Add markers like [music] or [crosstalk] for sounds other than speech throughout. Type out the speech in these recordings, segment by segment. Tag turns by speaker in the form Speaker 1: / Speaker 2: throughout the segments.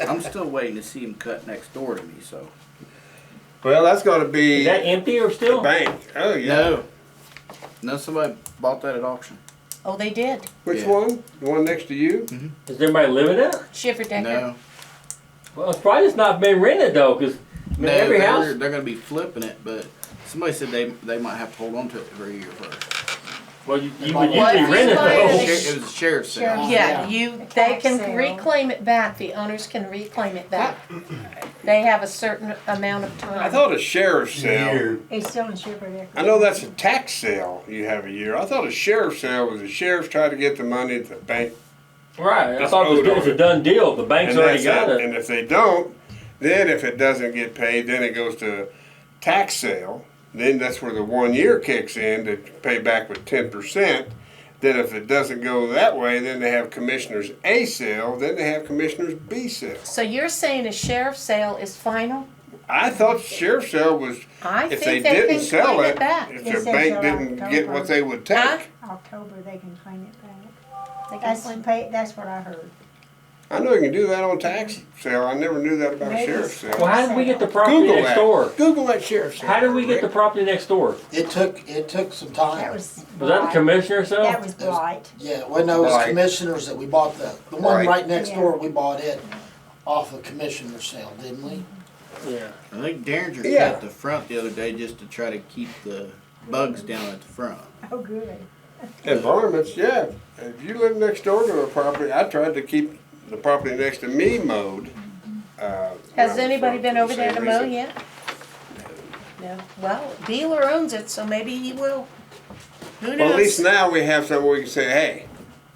Speaker 1: I'm still waiting to see him cut next door to me, so.
Speaker 2: Well, that's going to be
Speaker 3: Is that empty or still?
Speaker 2: bank. Oh yeah.
Speaker 1: No. No, somebody bought that at auction.
Speaker 4: Oh, they did.
Speaker 2: Which
Speaker 1: Yeah.
Speaker 2: one? The one next to you?
Speaker 3: Is everybody living in it?
Speaker 4: Shiver Decker.
Speaker 1: No.
Speaker 3: Well, it's probably just not been rented though, because I mean,
Speaker 1: No,
Speaker 3: every
Speaker 1: they're,
Speaker 3: house.
Speaker 1: they're gonna be flipping it, but somebody said they, they might have to hold on to it for a year first.
Speaker 3: Well, you, you
Speaker 5: What
Speaker 3: would
Speaker 5: if
Speaker 3: usually
Speaker 4: you
Speaker 3: rent it
Speaker 4: buy
Speaker 3: though.
Speaker 4: it?
Speaker 1: It was a sheriff's sale.
Speaker 4: Oh, Yeah,
Speaker 5: Yeah.
Speaker 4: you. They can
Speaker 5: Tax sale.
Speaker 4: reclaim it back. The owners can reclaim it back. They have a certain amount of time.
Speaker 2: I thought a sheriff's sale.
Speaker 6: Year.
Speaker 5: It's still in Shepherd Decker.
Speaker 2: I know that's a tax sale you have a year. I thought a sheriff's sale was the sheriff tried to get the money to the bank.
Speaker 3: Right. I
Speaker 2: That's
Speaker 3: thought it was,
Speaker 2: owed
Speaker 3: it was
Speaker 2: on
Speaker 3: a
Speaker 2: it.
Speaker 3: done deal. The bank's
Speaker 2: And,
Speaker 3: already
Speaker 2: that's
Speaker 3: got
Speaker 2: it.
Speaker 3: it.
Speaker 2: and if they don't, then if it doesn't get paid, then it goes to a tax sale. Then that's where the one year kicks in to pay back with 10%. Then if it doesn't go that way, then they have commissioners A sale, then they have commissioners B sale.
Speaker 4: So you're saying a sheriff's sale is final?
Speaker 2: I thought sheriff's sale was
Speaker 4: I
Speaker 2: if they
Speaker 4: think they,
Speaker 2: didn't
Speaker 4: can
Speaker 2: sell
Speaker 4: claim
Speaker 2: it,
Speaker 4: it back.
Speaker 2: if
Speaker 5: It
Speaker 2: the
Speaker 5: says
Speaker 2: bank
Speaker 5: July,
Speaker 2: didn't get what
Speaker 5: October.
Speaker 2: they would take.
Speaker 4: Huh?
Speaker 5: October, they can claim it back.
Speaker 4: They can
Speaker 5: That's,
Speaker 4: claim-
Speaker 5: pay- that's what I heard.
Speaker 2: I know you can do that on tax sale. I never knew that about a
Speaker 5: Maybe.
Speaker 2: sheriff's sale.
Speaker 3: well, how did we get the property
Speaker 2: Google
Speaker 3: next
Speaker 2: that.
Speaker 3: door?
Speaker 2: Google that sheriff's sale.
Speaker 3: How did we get the property next door?
Speaker 6: It took, it took some
Speaker 5: That was.
Speaker 6: time.
Speaker 3: Was that the
Speaker 5: Blight.
Speaker 3: commissioner or something?
Speaker 5: That was blight.
Speaker 6: Yeah, well, no, it was
Speaker 2: Right.
Speaker 6: commissioners that we bought the, the one
Speaker 2: Right.
Speaker 6: right next
Speaker 5: Yeah.
Speaker 6: door, we bought it off of commissioner sale, didn't we?
Speaker 3: yeah.
Speaker 1: I think Derringer
Speaker 2: Yeah.
Speaker 1: cut the front the other day just to try to keep the bugs down at the front.
Speaker 5: [laughs] Oh, good.
Speaker 2: Environments, yeah. If you live next door to a property, I tried to keep the property next to me mowed. uh,
Speaker 4: Has
Speaker 2: for-
Speaker 4: anybody
Speaker 2: for
Speaker 4: been
Speaker 2: the
Speaker 4: over there to
Speaker 2: same
Speaker 4: mow
Speaker 2: reason.
Speaker 4: yet? No. Well, dealer owns it, so maybe he will. Who knows?
Speaker 2: Well, at least now we have something we can say, hey,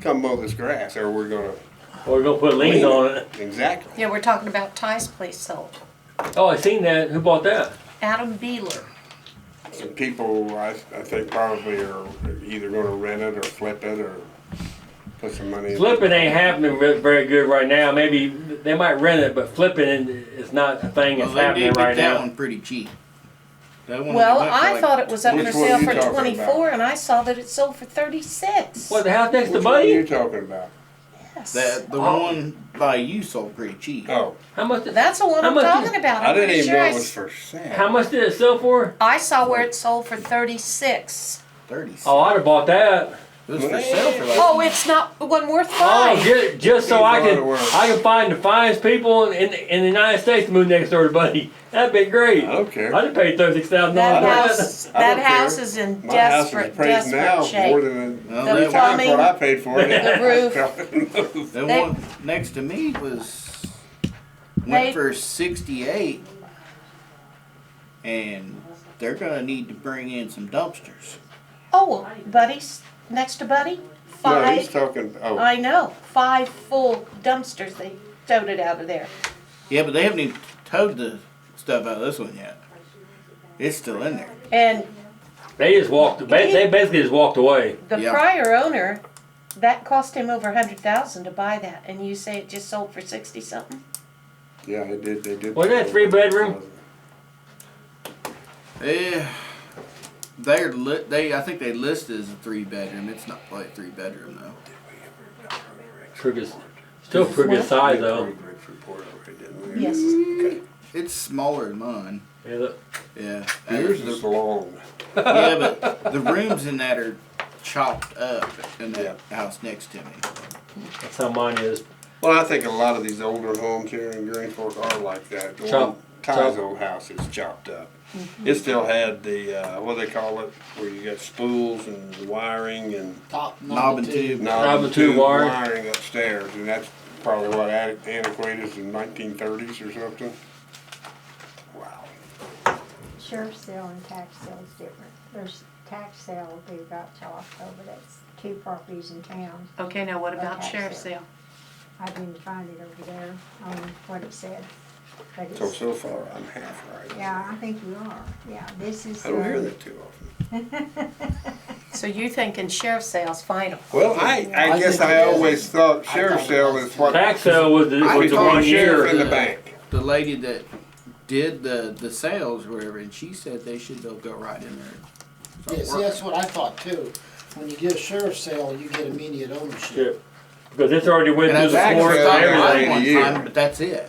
Speaker 2: come mow this grass, or we're gonna,
Speaker 3: Or we're gonna put liens on it.
Speaker 2: exactly.
Speaker 4: Yeah, we're talking about Ty's place sold.
Speaker 3: Oh, I seen that. Who bought that?
Speaker 4: Adam Beeler.
Speaker 2: Some people, I, I think probably are either gonna rent it or flip it or put some money in.
Speaker 3: Flipping ain't happening ve- very good right now. Maybe they might rent it, but flipping is not a thing
Speaker 1: Well,
Speaker 3: that's
Speaker 1: they
Speaker 3: happening
Speaker 1: did
Speaker 3: right
Speaker 1: get that
Speaker 3: now.
Speaker 1: one pretty cheap. That one
Speaker 4: Well,
Speaker 1: went for
Speaker 4: I
Speaker 1: like-
Speaker 4: thought it was up
Speaker 2: Which
Speaker 4: for
Speaker 2: one
Speaker 4: sale
Speaker 2: you
Speaker 4: for
Speaker 2: talking
Speaker 4: twenty-four,
Speaker 2: about?
Speaker 4: and I saw that it sold for thirty-six.
Speaker 3: What the house next
Speaker 2: Which
Speaker 3: to
Speaker 2: one are you
Speaker 3: Buddy?
Speaker 2: talking about?
Speaker 4: Yes.
Speaker 1: That the
Speaker 3: Oh.
Speaker 1: one by you sold pretty cheap.
Speaker 2: Oh,
Speaker 3: How much? Did,
Speaker 4: That's the one
Speaker 3: How
Speaker 4: I'm
Speaker 3: much
Speaker 4: talking
Speaker 3: is-
Speaker 4: about.
Speaker 2: I
Speaker 4: I'm
Speaker 2: didn't
Speaker 4: pretty
Speaker 2: even
Speaker 4: sure
Speaker 2: know
Speaker 4: I
Speaker 2: it was
Speaker 4: s-
Speaker 2: for sale.
Speaker 3: how much did it sell for?
Speaker 4: I saw where it sold for thirty-six.
Speaker 1: Thirty.
Speaker 3: Oh, I'd have bought that.
Speaker 1: It was for sale for like.
Speaker 4: Oh, it's not the one worth
Speaker 3: Oh,
Speaker 4: buying.
Speaker 3: just, just so
Speaker 2: He's
Speaker 3: I
Speaker 2: a lot
Speaker 3: can
Speaker 2: of work.
Speaker 3: I can find the finest people in, in in the United States to move next door to Buddy. That'd be great.
Speaker 2: I don't care.
Speaker 3: I'd have paid thirty six thousand
Speaker 4: That
Speaker 3: dollars.
Speaker 4: house,
Speaker 2: I
Speaker 4: that
Speaker 2: don't care.
Speaker 4: house is in
Speaker 2: My house is
Speaker 4: desperate,
Speaker 2: appraised now
Speaker 4: desperate
Speaker 2: more
Speaker 4: shape.
Speaker 2: than
Speaker 1: Well,
Speaker 4: The
Speaker 2: three
Speaker 1: that,
Speaker 2: times what I
Speaker 4: plumbing,
Speaker 2: paid for it.
Speaker 4: the
Speaker 2: [laughs]
Speaker 4: roof.
Speaker 2: roof.
Speaker 1: that
Speaker 4: they-
Speaker 1: one next to me was went
Speaker 4: They-
Speaker 1: for sixty-eight, and they're gonna need to bring in some dumpsters.
Speaker 4: Oh, buddies, next to Buddy,
Speaker 2: No, he's
Speaker 4: five,
Speaker 2: talking, oh,
Speaker 4: I know, five full dumpsters they towed it out of there.
Speaker 1: Yeah, but they haven't even towed the stuff out of this one yet. It's still in there.
Speaker 4: And
Speaker 3: They just walked. ba- They basically just walked away.
Speaker 4: the
Speaker 1: Yeah.
Speaker 4: prior owner, that cost him over a hundred thousand to buy that, and you say it just sold for sixty something?
Speaker 2: yeah, they did, they did.
Speaker 3: Wasn't that three bedroom?
Speaker 1: Eh, they're lit. They I think they list it as a three bedroom. It's not quite a three bedroom though.
Speaker 3: Pretty good- still pretty good size though.
Speaker 4: Yes.
Speaker 1: It's smaller than mine.
Speaker 3: Yeah, look.
Speaker 1: Yeah.
Speaker 2: Yours
Speaker 1: Uh, the-
Speaker 2: is long.
Speaker 1: yeah, but
Speaker 2: [laughs]
Speaker 1: the rooms in that are chopped up in that house next to me.
Speaker 3: That's how mine is.
Speaker 2: Well, I think a lot of these older homes here in Greenport are like that. The
Speaker 3: Chop-
Speaker 2: one
Speaker 3: chop.
Speaker 2: Ty's old house is chopped up.
Speaker 6: Mm-hmm.
Speaker 2: It still had the, uh, what do they call it, where you got spools and wiring and
Speaker 6: Top
Speaker 1: Knob and
Speaker 6: number two.
Speaker 1: tube.
Speaker 2: knob
Speaker 3: and
Speaker 2: and
Speaker 3: tube
Speaker 2: tube
Speaker 3: wire.
Speaker 2: wiring upstairs, and that's probably what adi- antiquated is in nineteen thirties or something. Wow.
Speaker 5: Sheriff's sale and tax sale is different. There's tax sale they've got till October. That's two properties in town.
Speaker 4: Okay, now what about
Speaker 5: Okay,
Speaker 4: sheriff's
Speaker 5: sure.
Speaker 4: sale?
Speaker 5: I didn't find it over there on what it said. But
Speaker 2: So,
Speaker 5: it's,
Speaker 2: so far, I'm half right.
Speaker 5: yeah, I think you are. Yeah, this is.
Speaker 2: I don't hear
Speaker 5: uh,
Speaker 2: that too often.
Speaker 4: So you're thinking sheriff's sale's final?
Speaker 2: Well, I, I
Speaker 6: I
Speaker 2: guess
Speaker 6: think
Speaker 2: I
Speaker 6: it is.
Speaker 2: always thought
Speaker 6: I
Speaker 2: sheriff's
Speaker 6: thought it
Speaker 2: sale
Speaker 6: was.
Speaker 2: is what.
Speaker 3: Tax sale was the,
Speaker 2: I
Speaker 3: was the
Speaker 2: call
Speaker 3: one
Speaker 2: sheriff in
Speaker 3: year.
Speaker 2: the bank.
Speaker 1: The lady that did the the sales, or whatever, and she said they should be able to go right in there.
Speaker 6: Yeah, see, that's what I thought too. When you get a sheriff's sale, you get immediate ownership.
Speaker 3: because it's already went
Speaker 1: And
Speaker 3: through
Speaker 1: that's actually
Speaker 2: Tax
Speaker 3: the courts
Speaker 2: sale
Speaker 1: stopped
Speaker 3: and
Speaker 2: every
Speaker 1: by
Speaker 2: day of
Speaker 3: everything.
Speaker 2: the
Speaker 1: one
Speaker 2: year.
Speaker 1: time, but that's it.